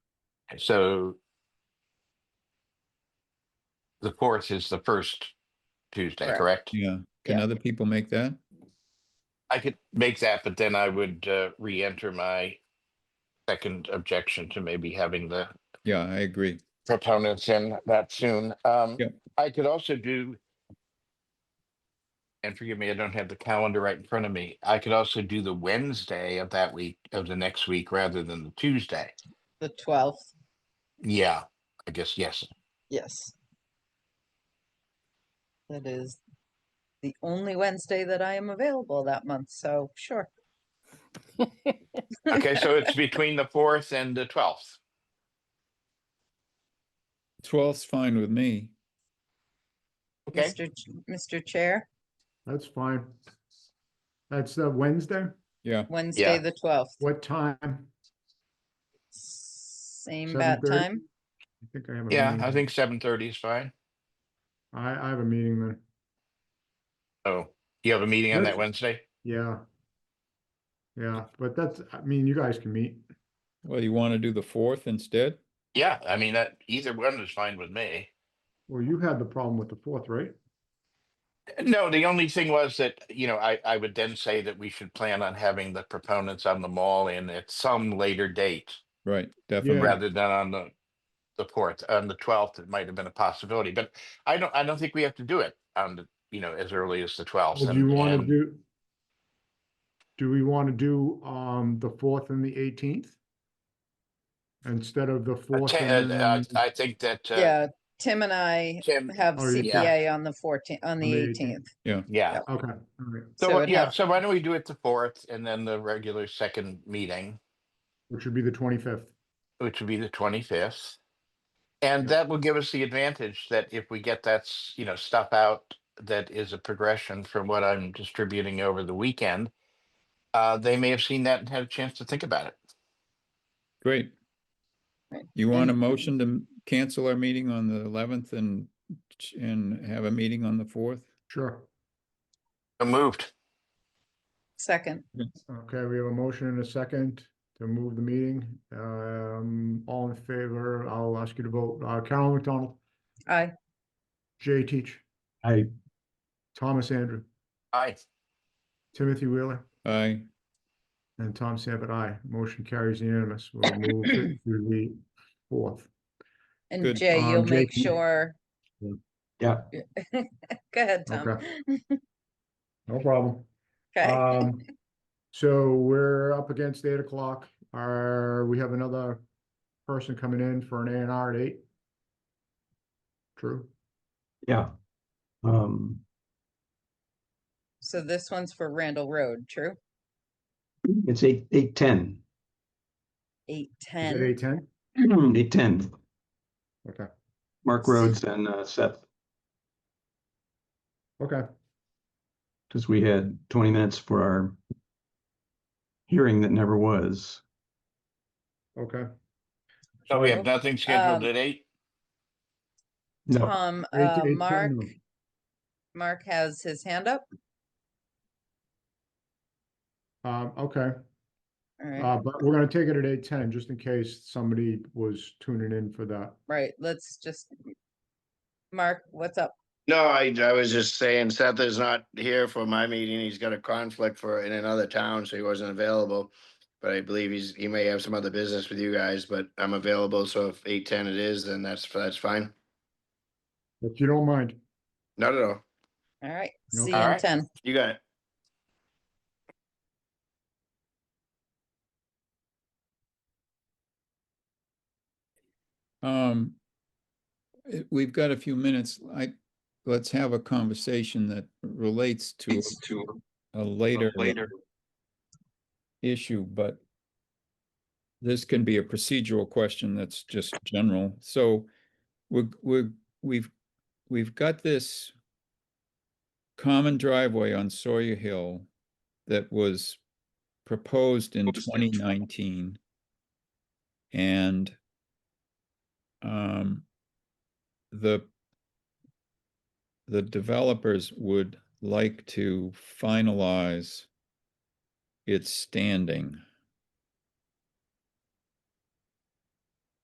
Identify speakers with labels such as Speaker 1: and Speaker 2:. Speaker 1: so the fourth is the first Tuesday,
Speaker 2: Correct.
Speaker 1: correct?
Speaker 3: Yeah, can
Speaker 2: Yeah.
Speaker 3: other people make that?
Speaker 1: I could make that, but then I would uh, re-enter my second objection to maybe having the
Speaker 3: Yeah, I agree.
Speaker 1: proponents in that soon. Um,
Speaker 3: Yep.
Speaker 1: I could also do, and forgive me, I don't have the calendar right in front of me. I could also do the Wednesday of that week, of the next week, rather than the Tuesday.
Speaker 2: the twelfth,
Speaker 1: Yeah, I guess, yes.
Speaker 2: yes. That is the only Wednesday that I am available that month, so sure,
Speaker 1: Okay, so it's between the fourth and the twelfth.
Speaker 3: Twelve's fine with me.
Speaker 1: Okay,
Speaker 2: Mr. Ch- Mr. Chair,
Speaker 4: That's fine. That's uh, Wednesday?
Speaker 3: Yeah,
Speaker 2: Wednesday, the twelfth,
Speaker 4: What time? I
Speaker 2: same bat
Speaker 4: 7:30?
Speaker 2: time.
Speaker 4: think I have. a
Speaker 1: yeah,
Speaker 4: meeting.
Speaker 1: I think seven thirty is fine.
Speaker 4: I, I have a meeting then.
Speaker 1: Oh, you have a meeting on that
Speaker 4: Good.
Speaker 1: Wednesday?
Speaker 4: Yeah. Yeah, but that's, I mean, you guys can meet.
Speaker 3: well, you want to do the fourth instead?
Speaker 1: Yeah, I mean, that, either one is fine with me.
Speaker 4: Well, you had the problem with the fourth, right?
Speaker 1: No, the only thing was that, you know, I, I would then say that we should plan on having the proponents on the mall in at some later date
Speaker 3: Right, definitely.
Speaker 4: Yeah.
Speaker 1: rather than on the, the fourth, on the twelfth, it might have been a possibility, but I don't, I don't think we have to do it on the, you know, as early as the twelfth.
Speaker 4: Would you want to do? Do we want to do, um, the fourth and the eighteenth? Instead of the fourth and
Speaker 1: I,
Speaker 4: then
Speaker 1: uh, I think that, uh,
Speaker 2: Yeah, Tim and I
Speaker 1: Tim,
Speaker 2: have
Speaker 4: Oh, yeah.
Speaker 2: CPA on the fourteenth, on the
Speaker 4: the
Speaker 2: eighteenth.
Speaker 4: 18th.
Speaker 1: yeah.
Speaker 4: Okay, all right,
Speaker 2: So
Speaker 1: So,
Speaker 2: it
Speaker 1: yeah,
Speaker 2: has-
Speaker 1: so why don't we do it the fourth and then the regular second meeting?
Speaker 4: which would be the twenty-fifth.
Speaker 1: which would be the twenty-fifth. And that will give us the advantage that if we get that, s- you know, stuff out that is a progression from what I'm distributing over the weekend, uh, they may have seen that and had a chance to think about it.
Speaker 3: Great.
Speaker 2: Right.
Speaker 3: You want a
Speaker 2: And-
Speaker 3: motion to m- cancel our meeting on the eleventh and, ch- and have a meeting on the fourth?
Speaker 4: Sure.
Speaker 1: So Moved.
Speaker 2: Second,
Speaker 4: Okay, we have a motion and a second to move the meeting. Um, all in favor, I'll ask you to vote. Uh, Carolyn McDonald,
Speaker 2: I,
Speaker 4: Jay Teach. Aye. Thomas Andrew,
Speaker 1: Aye.
Speaker 4: Timothy Wheeler,
Speaker 3: Aye,
Speaker 4: and Tom Sanford, aye. Motion carries unanimous. We'll move it to the fourth.
Speaker 2: and
Speaker 3: Good.
Speaker 2: Jay,
Speaker 4: Um,
Speaker 2: you'll
Speaker 4: Jay,
Speaker 2: make
Speaker 4: can you-
Speaker 2: sure.
Speaker 5: Yeah.
Speaker 2: Go ahead, Tom.
Speaker 4: No problem.
Speaker 2: Okay,
Speaker 4: Um, so we're up against eight o'clock. Are, we have another person coming in for an A and R at eight? True.
Speaker 5: Yeah. Um,
Speaker 2: so this one's for Randall Road, true?
Speaker 5: it's eight, eight, ten,
Speaker 2: Eight,
Speaker 4: Is it
Speaker 2: ten,
Speaker 4: eight ten?
Speaker 5: eight, ten,
Speaker 4: Okay,
Speaker 5: Mark Rhodes and uh, Seth,
Speaker 4: okay.
Speaker 5: because we had twenty minutes for our hearing that never was.
Speaker 4: Okay,
Speaker 1: So we have nothing scheduled
Speaker 2: Um,
Speaker 1: at eight?
Speaker 5: No,
Speaker 2: Tom,
Speaker 4: Eight-
Speaker 2: uh,
Speaker 4: eight ten,
Speaker 2: Mark,
Speaker 4: no.
Speaker 2: Mark has his hand up.
Speaker 4: um, okay,
Speaker 2: All right,
Speaker 4: uh, but we're gonna take it at eight ten, just in case somebody was tuning in for that.
Speaker 2: right, let's just. Mark, what's up?
Speaker 6: No, I, I was just saying Seth is not here for my meeting. He's got a conflict for, in another town, so he wasn't available. But I believe he's, he may have some other business with you guys, but I'm available, so if eight ten it is, then that's, that's fine.
Speaker 4: If you don't mind,
Speaker 6: Not at all.
Speaker 2: All right,
Speaker 4: Nope.
Speaker 2: see you
Speaker 1: All
Speaker 2: in
Speaker 1: right.
Speaker 2: ten.
Speaker 6: You got it.
Speaker 3: um, eh, we've got a few minutes, I, let's have a conversation that relates to a later. Later. Issue, but this can be a procedural question that's just general, so we're, we're, we've, we've got this common driveway on Sawyer Hill that was proposed in twenty nineteen. And um, the the developers would like to finalize its standing.